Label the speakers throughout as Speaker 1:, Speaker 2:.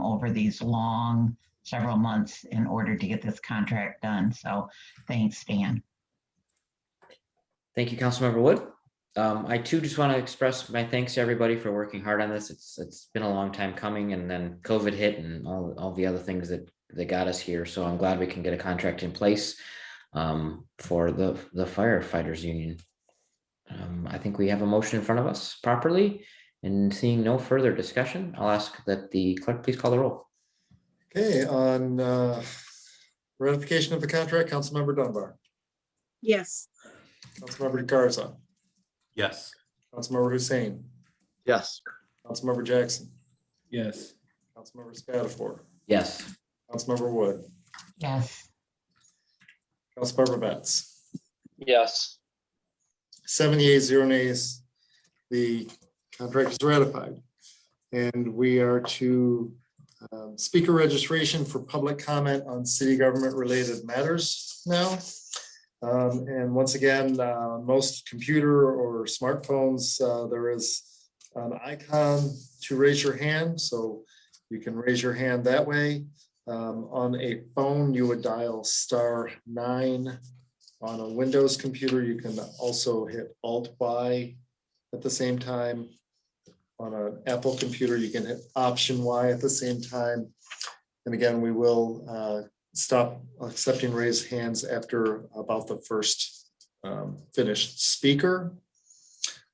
Speaker 1: over these long several months in order to get this contract done. So thanks, Dan.
Speaker 2: Thank you, Councilmember Wood. Um, I too just want to express my thanks to everybody for working hard on this. It's, it's been a long time coming and then COVID hit and all, all the other things that, that got us here. So I'm glad we can get a contract in place um, for the, the firefighters union. Um, I think we have a motion in front of us properly and seeing no further discussion, I'll ask that the clerk please call the roll.
Speaker 3: Okay, on uh, ratification of the contract, Councilmember Dunbar,
Speaker 4: Yes,
Speaker 3: Councilmember Garza,
Speaker 5: Yes.
Speaker 3: Councilmember Hussein,
Speaker 5: Yes.
Speaker 3: Councilmember Jackson,
Speaker 5: Yes.
Speaker 3: Councilmember Spatafor,
Speaker 2: Yes,
Speaker 3: Councilmember Wood,
Speaker 1: Yes,
Speaker 3: Councilmember Betts.
Speaker 5: Yes.
Speaker 3: Seven yeas, zero nays. The contract is ratified. And we are to um, speaker registration for public comment on city government related matters now. Um, And once again, uh, most computer or smartphones, uh, there is an icon to raise your hand, so you can raise your hand that way. Um, On a phone, you would dial star nine on a Windows computer, you can also hit Alt Y at the same time. On an Apple computer, you can hit Option Y at the same time. And again, we will uh, stop accepting raised hands after about the first um, finished speaker.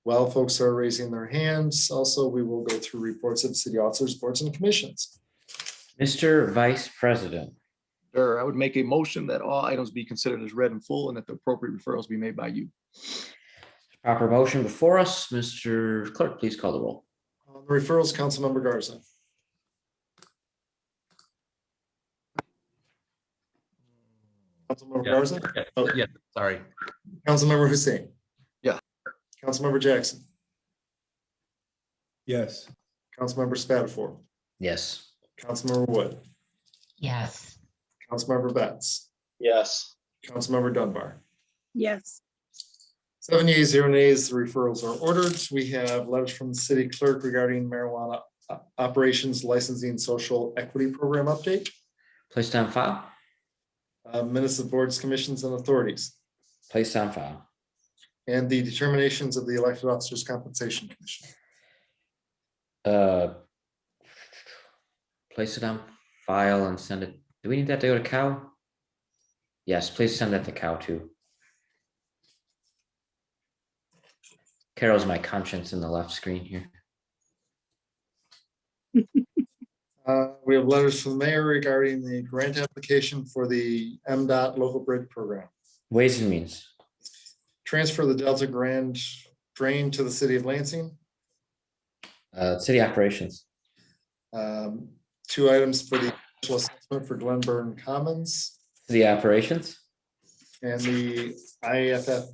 Speaker 3: While folks are raising their hands, also, we will go through reports of city officers, boards and commissions.
Speaker 2: Mr. Vice President.
Speaker 6: Sure, I would make a motion that all items be considered as read in full and that the appropriate referrals be made by you.
Speaker 2: Proper motion before us, Mr. Clerk, please call the roll.
Speaker 3: On Uh, the Referrals, Councilmember Garza. Councilmember
Speaker 5: Yeah.
Speaker 3: Garza,
Speaker 5: Oh, yeah, sorry.
Speaker 3: Councilmember Hussein.
Speaker 6: Yeah.
Speaker 3: Councilmember Jackson,
Speaker 5: Yes.
Speaker 3: Councilmember Spatafor,
Speaker 2: Yes.
Speaker 3: Councilmember Wood,
Speaker 1: yes,
Speaker 3: Councilmember Betts,
Speaker 5: Yes.
Speaker 3: Councilmember Dunbar.
Speaker 4: yes,
Speaker 3: Seven yeas, zero nays, the referrals are ordered. We have letters from the city clerk regarding marijuana uh, operations licensing social equity program update,
Speaker 2: Placed on file?
Speaker 3: uh, minutes of boards, commissions, and authorities.
Speaker 2: Placed on file.
Speaker 3: and the determinations of the elected officers compensation commission.
Speaker 2: Uh, Place it on file and send it. Do we need that to go to Cal? Yes, please send that to Cal too. Carol's my conscience in the left screen here.
Speaker 3: Uh, we have letters from the mayor regarding the grant application for the M dot local bridge program.
Speaker 2: Ways and means.
Speaker 3: Transfer the Delta Grand drain to the city of Lansing.
Speaker 2: Uh, city operations.
Speaker 3: Um, two items for the special assessment for Glen Burn Commons
Speaker 2: City operations.
Speaker 3: and the IFF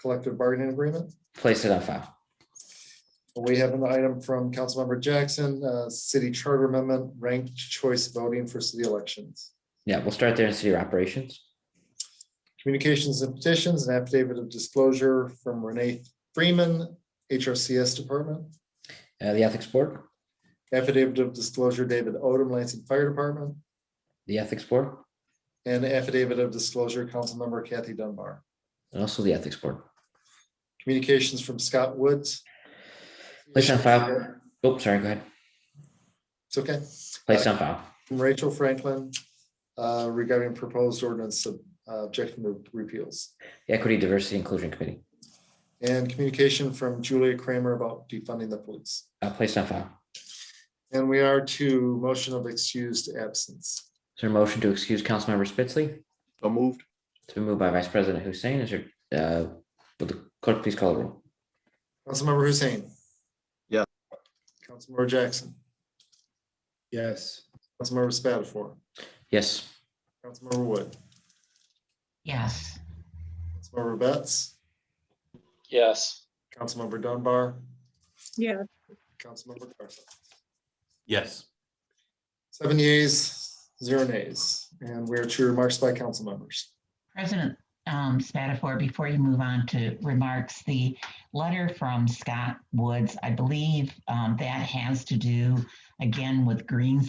Speaker 3: collective bargaining agreement.
Speaker 2: Place it on file.
Speaker 3: We have an item from Councilmember Jackson, uh, city charter amendment, ranked choice voting for city elections.
Speaker 2: Yeah, we'll start there in city operations.
Speaker 3: Communications and petitions, an affidavit of disclosure from Renee Freeman, HRCS Department.
Speaker 2: Uh, the ethics board,
Speaker 3: Affidavit of disclosure, David Odom, Lansing Fire Department.
Speaker 2: the ethics board,
Speaker 3: And affidavit of disclosure, Councilmember Kathy Dunbar.
Speaker 2: and also the ethics board.
Speaker 3: Communications from Scott Woods.
Speaker 2: Place on file. Oh, sorry, go ahead.
Speaker 3: It's okay. Uh,
Speaker 2: Place on file.
Speaker 3: From Rachel Franklin uh, regarding proposed ordinance of uh, objection to repeals.
Speaker 2: The Equity, Diversity, Inclusion Committee,
Speaker 3: And communication from Julia Kramer about defunding the police.
Speaker 2: uh, placed on file.
Speaker 3: And we are to motion of excused absence.
Speaker 2: Is there a motion to excuse Councilmember Spitzley?
Speaker 6: So moved.
Speaker 2: It's been moved by Vice President Hussein. Is there, uh, will the clerk please call the roll?
Speaker 3: Councilmember Hussein.
Speaker 6: Yeah.
Speaker 3: Councilmember Jackson,
Speaker 5: Yes.
Speaker 3: Councilmember Spatafor,
Speaker 2: Yes,
Speaker 3: Councilmember Wood,
Speaker 1: yes,
Speaker 3: Councilmember Betts,
Speaker 5: Yes.
Speaker 3: Councilmember Dunbar,
Speaker 4: yeah,
Speaker 3: Councilmember Garza.
Speaker 5: Yes.
Speaker 3: Seven yeas, zero nays, and we are to remarks by council members.
Speaker 1: President um, Spatafor, before you move on to remarks, the letter from Scott Woods, I believe um, that has to do again with Green